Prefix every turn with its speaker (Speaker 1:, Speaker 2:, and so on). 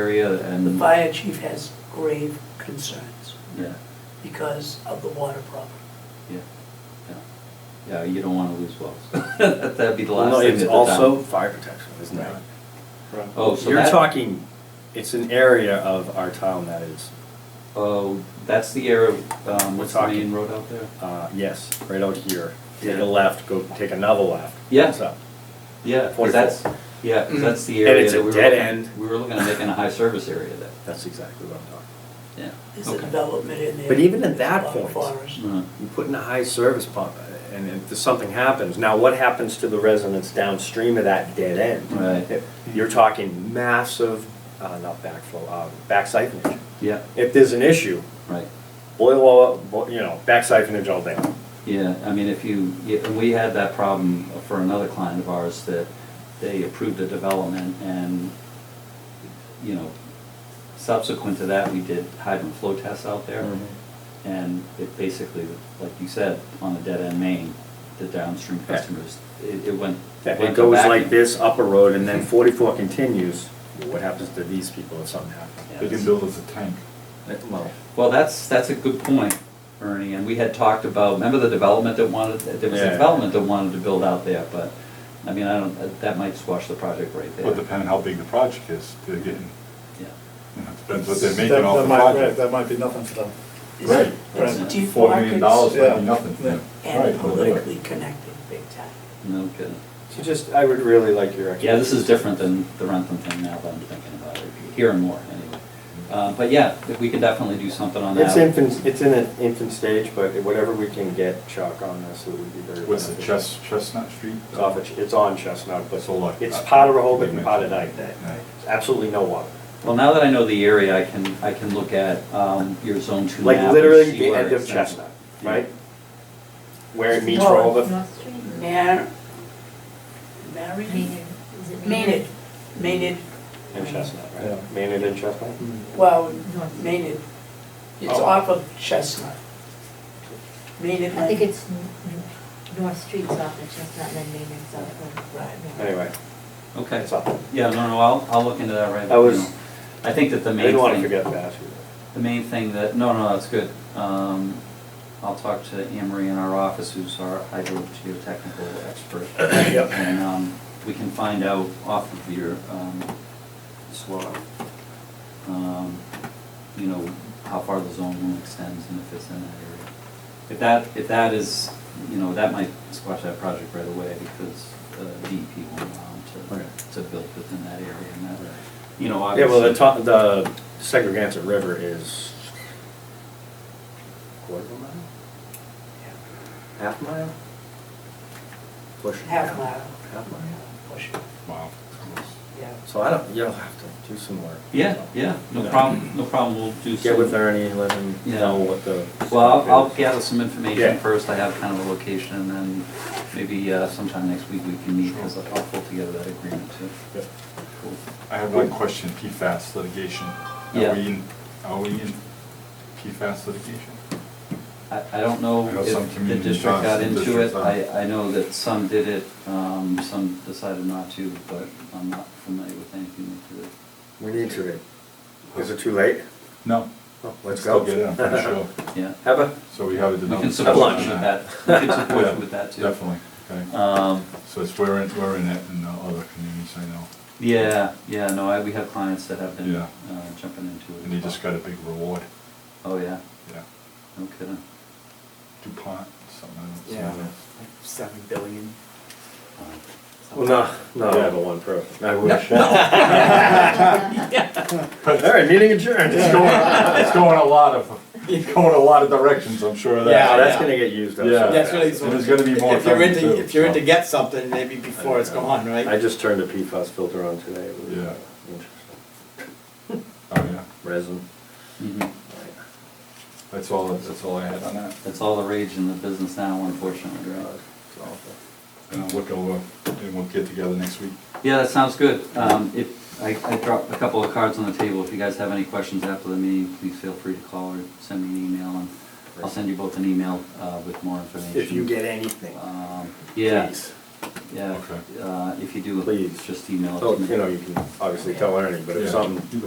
Speaker 1: area and
Speaker 2: The
Speaker 1: the.
Speaker 2: fire chief has grave concerns
Speaker 1: Yeah,
Speaker 2: because of the water problem.
Speaker 1: yeah, yeah. Yeah, you don't wanna lose wells. That'd be the
Speaker 3: Well,
Speaker 1: last
Speaker 3: no,
Speaker 1: thing at
Speaker 3: it's
Speaker 1: the
Speaker 3: also
Speaker 1: time.
Speaker 3: fire protection, isn't it?
Speaker 1: Oh, so
Speaker 3: You're
Speaker 1: that-
Speaker 3: talking, it's an area of our town that is,
Speaker 1: Oh, that's the area, um, what's the
Speaker 3: We're talking-
Speaker 1: main road out there?
Speaker 3: uh, yes, right out here. Take
Speaker 1: Yeah.
Speaker 3: a left, go take another left.
Speaker 1: Yeah.
Speaker 3: it's up.
Speaker 1: Yeah, 'cause
Speaker 3: 44.
Speaker 1: that's, yeah, 'cause that's the
Speaker 3: And
Speaker 1: area
Speaker 3: it's a
Speaker 1: that we were.
Speaker 3: dead
Speaker 1: looking-
Speaker 3: end.
Speaker 1: We were looking at making a high service area there,
Speaker 3: That's exactly what I'm talking
Speaker 1: yeah.
Speaker 2: There's a
Speaker 1: Okay.
Speaker 2: development in there.
Speaker 3: But even at that
Speaker 2: There's a lot of
Speaker 3: point-
Speaker 2: forest.
Speaker 1: Mm,
Speaker 3: about. You put in a high service pump, uh, and if there's something happens, now what happens to the residents downstream of that dead end?
Speaker 1: Right.
Speaker 3: You're talking massive, uh, not backflow, uh, back siphonage.
Speaker 1: Yeah,
Speaker 3: If there's an issue,
Speaker 1: right.
Speaker 3: boil all, bo- you know, back siphonage all day.
Speaker 1: Yeah, I mean, if you, yeah, and we had that problem for another client of ours that they approved a development and, you know, subsequent to that, we did hydrant flow tests out there.
Speaker 3: Mhm.
Speaker 1: And it basically, like you said, on a dead-end main, the downstream
Speaker 3: Yeah.
Speaker 1: customers, it, it went.
Speaker 3: That
Speaker 1: went
Speaker 3: It
Speaker 1: to
Speaker 3: goes
Speaker 1: vacuum.
Speaker 3: like this up a road and then forty-four continues, what happens to these people if something happens?
Speaker 1: Yeah,
Speaker 4: They
Speaker 1: it's-
Speaker 4: can build us a tank.
Speaker 3: That- Well,
Speaker 1: Eh, Well, that's, that's a good point, Ernie, and we had talked about, remember the development that wanted, there was a
Speaker 3: Yeah.
Speaker 1: development that wanted to build out there, but, I mean, I don't, that might squash the project right there.
Speaker 4: Well, depending how big the project is, they're getting,
Speaker 1: Yeah,
Speaker 4: you know, depends what they're
Speaker 5: That-
Speaker 4: making off
Speaker 5: that
Speaker 4: the
Speaker 5: might- right,
Speaker 4: project.
Speaker 5: That might be nothing for them.
Speaker 2: Is
Speaker 4: Right,
Speaker 2: it-
Speaker 5: right.
Speaker 2: it's deep
Speaker 4: Four million dollars
Speaker 2: pockets
Speaker 4: might be
Speaker 5: Yeah.
Speaker 4: nothing to them.
Speaker 2: And
Speaker 4: Right, well,
Speaker 2: politically connected big time.
Speaker 1: no kidding.
Speaker 3: so just, I would really like your.
Speaker 1: Yeah, this is different than the Rentham thing now that I'm thinking about it, here and more, anyway. Uh, But yeah, we can definitely do something on that.
Speaker 3: It's infant, it's in an infant stage, but whatever we can get Chuck on this, it would be very.
Speaker 4: What's the
Speaker 3: beneficial.
Speaker 4: Chest, Chestnut Street?
Speaker 3: It's off, of Ch- it's on Chestnut, but
Speaker 4: It's a lot.
Speaker 3: it's part of Rehoboth and part of Dyke.
Speaker 4: Right.
Speaker 3: Absolutely no water.
Speaker 1: Well, now that I know the area, I can, I can look at um, your zone two map.
Speaker 3: Like
Speaker 1: and
Speaker 3: literally
Speaker 1: see
Speaker 3: the
Speaker 1: where
Speaker 3: end of
Speaker 1: it's at.
Speaker 3: Chestnut, right?
Speaker 1: Yeah.
Speaker 3: Where it meets
Speaker 2: No.
Speaker 3: Rehoboth.
Speaker 2: Mar, Marion?
Speaker 6: Is it
Speaker 2: Maynard, Maynard,
Speaker 3: And Chestnut,
Speaker 5: Yeah.
Speaker 3: right? Maynard and Chestnut?
Speaker 1: Mm-hmm.
Speaker 2: well,
Speaker 6: North.
Speaker 2: Maynard. It's
Speaker 3: Oh.
Speaker 2: off of Chestnut. Maynard.
Speaker 6: I think
Speaker 2: Lane.
Speaker 6: it's N- N- North Street's off of Chestnut and then Maynard's off of.
Speaker 2: Right.
Speaker 6: North.
Speaker 3: Anyway,
Speaker 1: Okay,
Speaker 3: that's all.
Speaker 1: yeah, no, no, I'll, I'll look into that right now.
Speaker 3: I was-
Speaker 1: I think that the
Speaker 3: I
Speaker 1: main
Speaker 3: didn't want to
Speaker 1: thing,
Speaker 3: forget to ask you that.
Speaker 1: the main thing that, no, no, that's good. Um, I'll talk to Amory in our office, who's our hydrogeotechnical expert.
Speaker 3: Yep.
Speaker 1: And um, we can find out off of your um, SWOT, um, you know, how far the zone will extends and if it's in that area. If that, if that is, you know, that might squash that project right away because uh, DEP won't allow them
Speaker 3: Okay.
Speaker 1: to, to build within that area and that, you know, obviously.
Speaker 3: Yeah, well, the top, the Segregated River is quarter of a mile? Half mile? Push. it.
Speaker 2: Half mile.
Speaker 3: Half mile.
Speaker 2: Push it,
Speaker 4: Wow.
Speaker 2: yeah.
Speaker 3: So I don't, you'll have to do some work.
Speaker 1: Yeah, yeah, no
Speaker 3: No.
Speaker 1: problem, no problem, we'll do some.
Speaker 3: Get with Ernie, let him know what the.
Speaker 1: Well, I'll, I'll gather some information
Speaker 3: Yeah.
Speaker 1: first, I have kind of a location, and then maybe uh, sometime next week we can meet, because I'll pull together that agreement too.
Speaker 3: Yep.
Speaker 1: Cool.
Speaker 4: I have one question, PFAS litigation.
Speaker 1: Yeah.
Speaker 4: Are we in, are we in PFAS litigation?
Speaker 1: I, I don't know
Speaker 4: I know some
Speaker 1: if the
Speaker 4: community
Speaker 1: district
Speaker 4: jobs,
Speaker 1: got
Speaker 4: some
Speaker 1: into it,
Speaker 4: districts
Speaker 1: I,
Speaker 4: aren't.
Speaker 1: I know that some did it, um, some decided not to, but I'm not familiar with anything that did it.
Speaker 3: We need to, is it too late?
Speaker 4: No.
Speaker 3: Oh, Let's
Speaker 4: Still
Speaker 3: go.
Speaker 4: get it, I'm pretty sure.
Speaker 1: Yeah,
Speaker 3: Have a,
Speaker 4: So we have a.
Speaker 1: we
Speaker 4: development
Speaker 1: can support you
Speaker 3: lunch.
Speaker 1: with
Speaker 4: on
Speaker 1: that, we can support
Speaker 4: Yeah,
Speaker 1: you with that too.
Speaker 4: Definitely, okay.
Speaker 1: Um,
Speaker 4: So it's, we're in, we're in it in the other communities, I know.
Speaker 1: yeah, yeah, no, I, we have clients that have been
Speaker 4: Yeah.
Speaker 1: uh, jumping into it.
Speaker 4: And they just got a big reward,
Speaker 1: Oh, yeah,
Speaker 4: yeah.
Speaker 1: no kidding.
Speaker 4: DuPont, something. else,
Speaker 5: Yeah,
Speaker 4: something else.
Speaker 5: seven billion.
Speaker 3: well, no, no. I have a one pro. I wish. All right, meeting adjourned.
Speaker 4: It's going, it's going a lot of, it's going a lot of directions, I'm sure of that.
Speaker 3: Yeah, that's
Speaker 5: yeah.
Speaker 3: gonna get used up.
Speaker 4: Yeah.
Speaker 3: so
Speaker 5: That's
Speaker 3: fast.
Speaker 5: really.
Speaker 4: And there's gonna be more
Speaker 5: If you're
Speaker 4: coming
Speaker 5: into,
Speaker 4: too,
Speaker 5: if you're into
Speaker 4: so.
Speaker 5: get something, maybe before it's gone,
Speaker 3: I
Speaker 5: right?
Speaker 3: just turned a PFAS filter on today. It was, uh,
Speaker 4: Yeah.
Speaker 3: interesting.
Speaker 4: Oh, yeah,
Speaker 3: Resin.
Speaker 1: Mhm.
Speaker 4: that's all, that's all I had on that.
Speaker 1: That's all the rage in the business now, unfortunately, right?
Speaker 3: God, it's awful.
Speaker 4: And I'll look over, and we'll get together next week.
Speaker 1: Yeah, that sounds good. Um, If, I I dropped a couple of cards on the table. If you guys have any questions after the meeting, please feel free to call or send me an email, and I'll send you both an email uh, with more information.
Speaker 3: If you get anything, uh,
Speaker 1: Um, Yeah,
Speaker 3: please.
Speaker 1: yeah.
Speaker 4: Okay.
Speaker 1: Uh, If you do,
Speaker 3: Please. Oh,
Speaker 1: just email it
Speaker 3: So,
Speaker 1: to me.
Speaker 3: you know, you can obviously tell Ernie, but if
Speaker 4: Yeah.
Speaker 3: something